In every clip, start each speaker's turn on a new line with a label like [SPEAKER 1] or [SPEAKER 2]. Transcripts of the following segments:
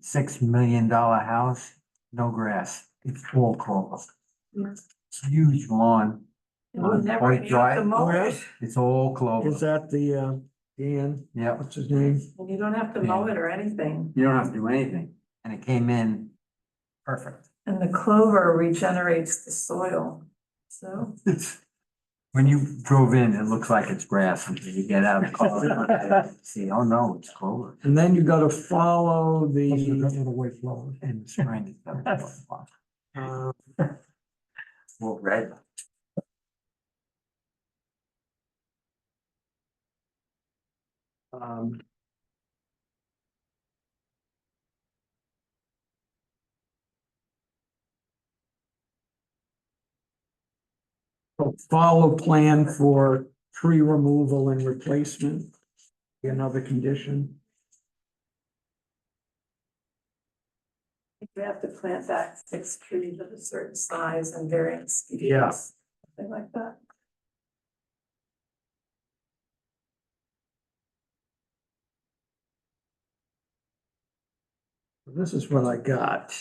[SPEAKER 1] six million dollar house, no grass, it's all clover.
[SPEAKER 2] Yeah.
[SPEAKER 1] It's Huge lawn,
[SPEAKER 2] And we
[SPEAKER 1] On
[SPEAKER 2] never
[SPEAKER 1] point
[SPEAKER 2] have
[SPEAKER 1] drive,
[SPEAKER 2] to mow
[SPEAKER 3] where
[SPEAKER 2] it.
[SPEAKER 3] is-
[SPEAKER 1] it's all
[SPEAKER 3] Is
[SPEAKER 1] clover,
[SPEAKER 3] that the, uh, Dan,
[SPEAKER 1] yeah.
[SPEAKER 3] what's his name?
[SPEAKER 2] And you don't have to mow it or anything.
[SPEAKER 1] You don't have to do anything, and it came in perfect.
[SPEAKER 2] And the clover regenerates the soil. So
[SPEAKER 1] It's, when you drove in, it looks like it's grass until you get out of the car. See, oh no, it's clover.
[SPEAKER 3] And then you gotta follow the,
[SPEAKER 1] In the spring. it's got-
[SPEAKER 3] uh,
[SPEAKER 1] Well, red.
[SPEAKER 3] um. so Follow plan for tree removal and replacement, be another condition.
[SPEAKER 2] you have to plant back six trees of a certain size and varying species.
[SPEAKER 3] Yeah.
[SPEAKER 2] Something like that.
[SPEAKER 3] This is what I got.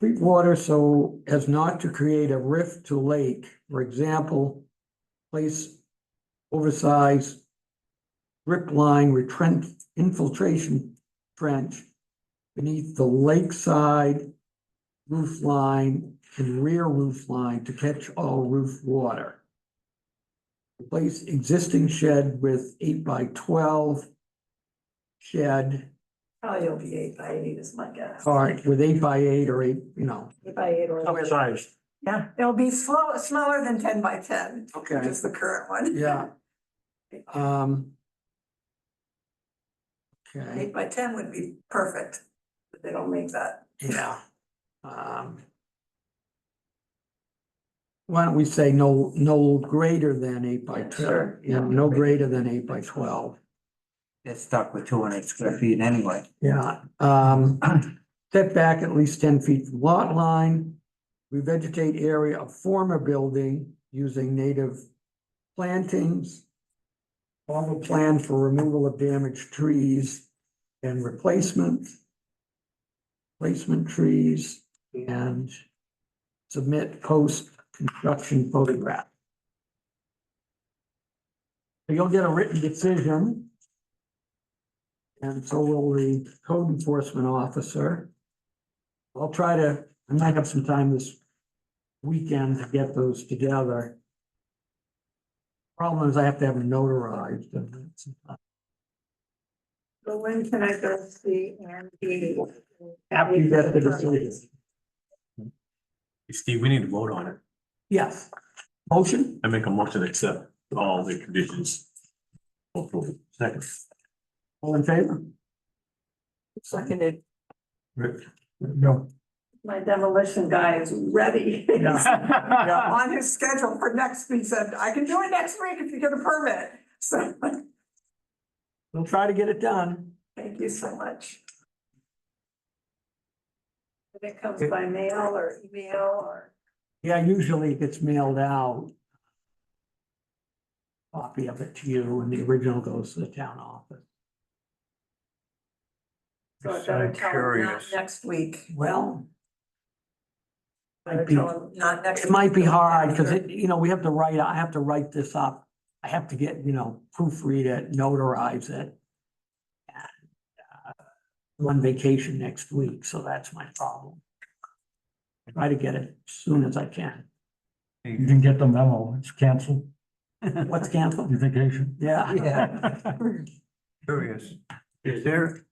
[SPEAKER 3] Treat water so as not to create a rift to lake, for example, place oversized drip line retrench infiltration trench beneath the lakeside roof line and rear roof line to catch all roof water. Replace existing shed with eight by twelve shed,
[SPEAKER 2] Probably it'll be eight by eight is my guess.
[SPEAKER 3] all right, with eight by eight or eight, you know.
[SPEAKER 2] Eight by eight or.
[SPEAKER 3] size.
[SPEAKER 2] Yeah, it'll be slow, smaller than ten by ten, which
[SPEAKER 3] Okay,
[SPEAKER 2] is the current one.
[SPEAKER 3] yeah. Um. Okay,
[SPEAKER 2] Eight by ten would be perfect, but they don't make that.
[SPEAKER 3] yeah. Um. Why don't we say no, no greater than eight by
[SPEAKER 2] Yeah,
[SPEAKER 3] twelve,
[SPEAKER 2] sure.
[SPEAKER 3] yeah, no greater than eight by twelve,
[SPEAKER 1] They're stuck with two hundred square feet anyway.
[SPEAKER 3] yeah, um. Step back at least ten feet from lot line. Revegetate area of former building using native plantings. Follow plan for removal of damaged trees and replacement. Placement trees and submit post-construction photograph. So You'll get a written decision. And so will the code enforcement officer. I'll try to, I might have some time this weekend to get those together. Problem is I have to have them notarized. and it's-
[SPEAKER 2] So when can I go see Andy?
[SPEAKER 3] After you get the decision.
[SPEAKER 4] Steve, we need to vote on it.
[SPEAKER 3] Yes. Motion?
[SPEAKER 4] I make a motion to accept all the conditions. Approval. Second.
[SPEAKER 3] All in favor?
[SPEAKER 2] Seconded.
[SPEAKER 4] Rick.
[SPEAKER 3] No.
[SPEAKER 2] My demolition guy is ready.
[SPEAKER 3] Yeah.
[SPEAKER 2] On his schedule for next week, said, I can do it next week if you get a permit. So,
[SPEAKER 3] We'll try to get it done.
[SPEAKER 2] thank you so much. If it comes by mail or email or,
[SPEAKER 3] Yeah, usually it gets mailed out. Copy of it to you and the original goes to the town office.
[SPEAKER 2] so I better tell him not next week.
[SPEAKER 3] Well.
[SPEAKER 2] Better
[SPEAKER 3] Might be,
[SPEAKER 2] tell him not next.
[SPEAKER 3] it might be
[SPEAKER 2] week.
[SPEAKER 3] hard, cause it, you know, we have to write, I have to write this up. I have to get, you know, proofread it, notarize it. And, uh, I'm on vacation next week, so that's my problem. Try to get it as soon as I can.
[SPEAKER 5] You didn't get the memo, it's canceled,
[SPEAKER 3] What's canceled?
[SPEAKER 5] your vacation.
[SPEAKER 3] Yeah.
[SPEAKER 6] Yeah. Curious, is there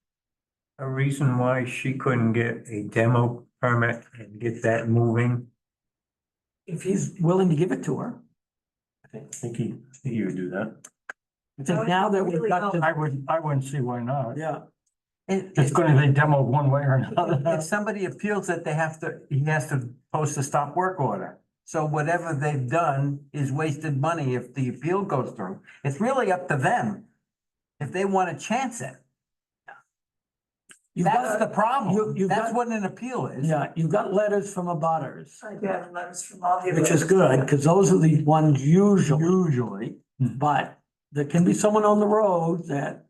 [SPEAKER 6] a reason why she couldn't get a demo permit and get that moving?
[SPEAKER 3] If he's willing to give it to her.
[SPEAKER 4] I think he, I think he would do that.
[SPEAKER 3] I
[SPEAKER 2] That would
[SPEAKER 3] think now that we've
[SPEAKER 2] really
[SPEAKER 3] got
[SPEAKER 2] help.
[SPEAKER 3] the,
[SPEAKER 5] I wouldn't, I wouldn't see why not.
[SPEAKER 3] yeah,
[SPEAKER 6] And
[SPEAKER 5] It's
[SPEAKER 6] if-
[SPEAKER 5] gonna be demoed one way or
[SPEAKER 6] If
[SPEAKER 5] another.
[SPEAKER 6] somebody appeals it, they have to, he has to post a stop work order. So whatever they've done is wasted money if the appeal goes through. It's really up to them. If they want to chance it,
[SPEAKER 3] you've
[SPEAKER 6] that's
[SPEAKER 3] got,
[SPEAKER 6] the
[SPEAKER 3] you-
[SPEAKER 6] problem.
[SPEAKER 3] you've
[SPEAKER 6] That's
[SPEAKER 3] got-
[SPEAKER 6] what an appeal is.
[SPEAKER 3] yeah, you've got letters from abutters,
[SPEAKER 2] I do have letters from all the.
[SPEAKER 3] which is good, because those are the ones usually,
[SPEAKER 4] Hmm.
[SPEAKER 6] Usually.
[SPEAKER 3] but there can be someone on the road that